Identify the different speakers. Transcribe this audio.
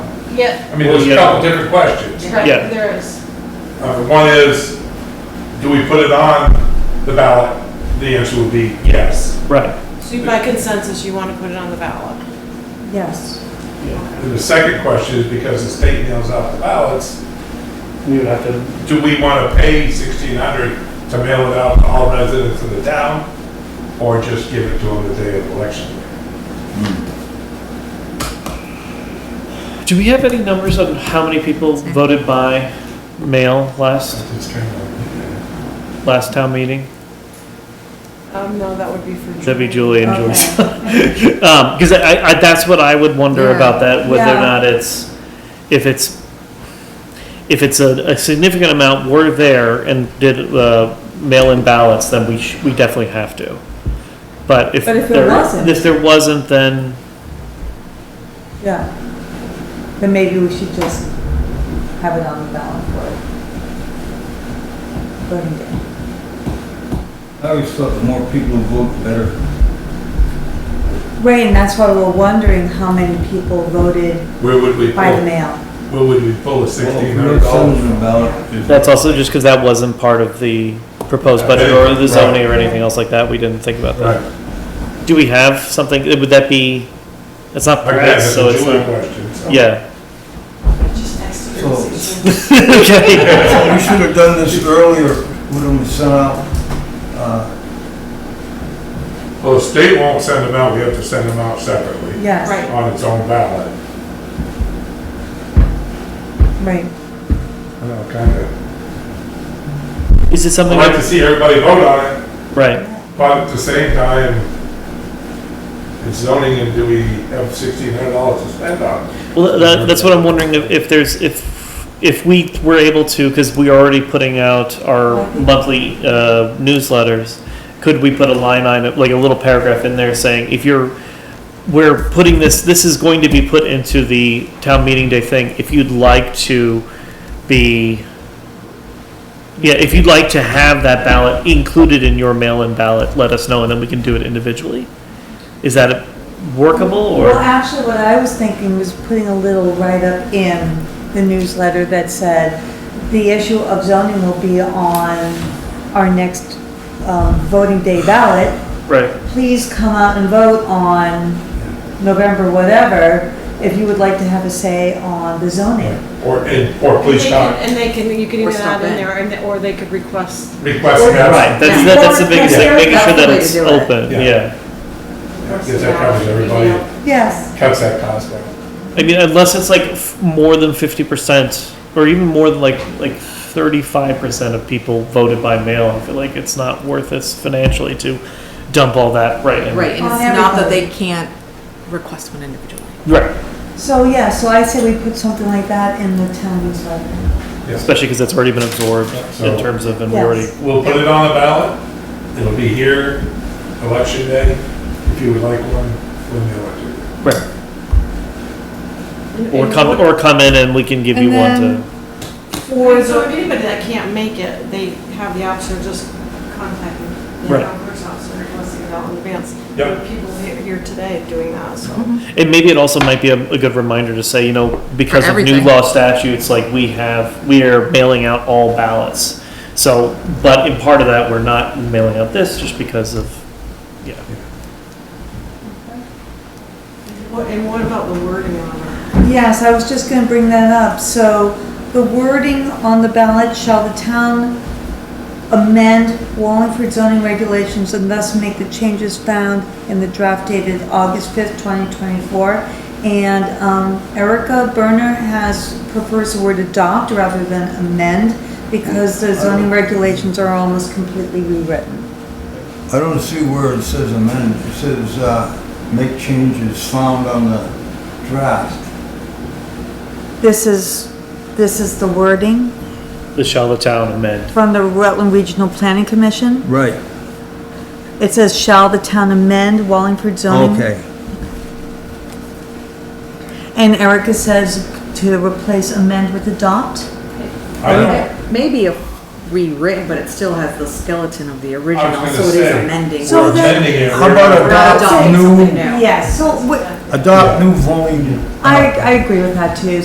Speaker 1: Yeah,
Speaker 2: I mean, there's a
Speaker 3: Well, yeah.
Speaker 2: couple different questions.
Speaker 1: right,
Speaker 3: Yeah.
Speaker 1: there is.
Speaker 2: Uh, One is, do we put it on the ballot? The answer would be yes.
Speaker 3: Right,
Speaker 4: So by consensus, you want to put it on the ballot?
Speaker 5: Yes.
Speaker 2: And the second question is, because the state nails out the ballots,
Speaker 3: we would have to,
Speaker 2: do we want to pay sixteen hundred to mail it out to all residents of the town? Or just give it to them the day of election?
Speaker 3: do we have any numbers on how many people voted by mail last,
Speaker 2: It's kind of-
Speaker 3: last town meeting?
Speaker 4: Um, no, that would be for.
Speaker 3: That'd be Julie and Julie's.
Speaker 5: Okay.
Speaker 3: Um, cause I, I, that's what I would wonder
Speaker 5: Yeah.
Speaker 3: about that, whether or
Speaker 5: Yeah.
Speaker 3: not it's, if it's, if it's a, a significant amount were there and did, uh, mail-in ballots, then we sh we definitely have to. But if
Speaker 5: But if there wasn't-
Speaker 3: If there wasn't, then,
Speaker 5: Yeah. Then maybe we should just have it on the ballot for it. voting day.
Speaker 6: I always thought the more people who vote, the better.
Speaker 5: Right, and that's why we're wondering how many people voted
Speaker 2: Where would we
Speaker 5: by the
Speaker 2: pull,
Speaker 5: mail.
Speaker 2: where would we pull the sixteen hundred dollars from?
Speaker 3: that's also just cause that wasn't part of the proposed budget or the zoning or anything else like that, we didn't think about that.
Speaker 2: Right,
Speaker 3: Do we have something, would that be, it's not
Speaker 2: again,
Speaker 3: press,
Speaker 2: that's
Speaker 3: so
Speaker 2: a
Speaker 3: it's
Speaker 2: Julie
Speaker 3: not,
Speaker 2: question. so-
Speaker 3: yeah.
Speaker 4: Just next to your
Speaker 6: So-
Speaker 4: decision.
Speaker 3: Okay.
Speaker 6: We should have done this earlier, would have sent out, uh,
Speaker 2: Well, the state won't send them out, we have to send them out separately
Speaker 5: Yes.
Speaker 4: Right.
Speaker 2: on its own ballot.
Speaker 5: Right.
Speaker 2: I know, kind of.
Speaker 3: Is it
Speaker 2: I'd
Speaker 3: something,
Speaker 2: like to see everybody vote on it,
Speaker 3: right?
Speaker 2: but at the same time, it's zoning and do we have sixteen hundred dollars to spend on? it?
Speaker 3: Well, that, that's what I'm wondering if, if there's, if, if we were able to, because we are already putting out our monthly, uh, newsletters, could we put a line item, like a little paragraph in there saying, if you're, we're putting this, this is going to be put into the town meeting day thing, if you'd like to be, yeah, if you'd like to have that ballot included in your mail-in ballot, let us know, and then we can do it individually. Is that workable,
Speaker 5: Well,
Speaker 3: or?
Speaker 5: actually, what I was thinking was putting a little write-up in the newsletter that said, the issue of zoning will be on our next um, voting day ballot.
Speaker 3: Right.
Speaker 5: Please come out and vote on November whatever, if you would like to have a say on the zoning.
Speaker 2: Or, and, or
Speaker 4: And they
Speaker 3: uh,
Speaker 2: please
Speaker 4: can-
Speaker 2: not
Speaker 4: And they can, you can
Speaker 1: Or
Speaker 4: even add
Speaker 1: stop
Speaker 4: in
Speaker 1: it.
Speaker 4: there, and- or they could request,
Speaker 2: request that.
Speaker 3: Right, that's, that- that's the biggest thing, making sure that it's
Speaker 1: Yeah.
Speaker 3: open,
Speaker 2: Yeah.
Speaker 3: yeah.
Speaker 2: Because that covers everybody,
Speaker 5: Yes,
Speaker 2: cuts that cost down.
Speaker 3: I mean, unless it's like f- more than fifty percent, or even more than like, like thirty-five percent of people voted by mail, I feel like it's not worth us financially to dump all that right in.
Speaker 1: Right, and
Speaker 5: On
Speaker 1: it's not that
Speaker 5: everybody.
Speaker 1: they can't request one individually.
Speaker 3: Right,
Speaker 5: so yeah, so I say we put something like that in the town newsletter.
Speaker 2: Yes.
Speaker 3: especially because it's already been absorbed in
Speaker 2: So-
Speaker 3: terms of, and we
Speaker 5: Yes.
Speaker 3: already,
Speaker 2: We'll put it on the ballot, it'll be here, election day, if you would like one, when the election.
Speaker 3: right, or come, or come in and we can give you one
Speaker 1: And then-
Speaker 3: to,
Speaker 4: or so if anybody that can't make it, they have the option of just contacting the
Speaker 3: Right.
Speaker 4: numbers officer and listing it out in advance.
Speaker 2: Yep.
Speaker 4: There are People he- here today doing that, so.
Speaker 3: and maybe it also might be a, a good reminder to say, you know, because of new
Speaker 1: everything.
Speaker 3: law statutes, like we have, we are mailing out all ballots. So, but in part of that, we're not mailing out this just because of
Speaker 4: What- And what about the wording on it?
Speaker 5: Yes, I was just gonna bring that up, so the wording on the ballot, shall the town amend Wallingford zoning regulations and thus make the changes found in the draft dated August fifth, twenty twenty-four? And, um, Erica Berner has, prefers the word adopt rather than amend, because the zoning regulations are almost completely rewritten.
Speaker 6: I don't see where it says amend, it says, uh, make changes found on the draft.
Speaker 5: This is, this is the wording
Speaker 3: the Charlottetown amend.
Speaker 5: from the Rutland Regional Planning Commission?
Speaker 6: Right,
Speaker 5: It says, shall the town amend Wallingford zoning? And Erica says to replace amend with adopt?
Speaker 2: I don't,
Speaker 1: Maybe a rewritten, but it still has the skeleton of the original,
Speaker 2: gonna
Speaker 1: so it is
Speaker 2: say.
Speaker 1: amending.
Speaker 5: So
Speaker 2: we're
Speaker 5: then-
Speaker 2: amending it.
Speaker 6: How about
Speaker 2: We're-
Speaker 1: We're
Speaker 6: adopt
Speaker 1: adopting
Speaker 6: new-
Speaker 1: something new.
Speaker 5: Yes. So, wh-
Speaker 6: Adopt new voting.
Speaker 5: I, I agree with that too,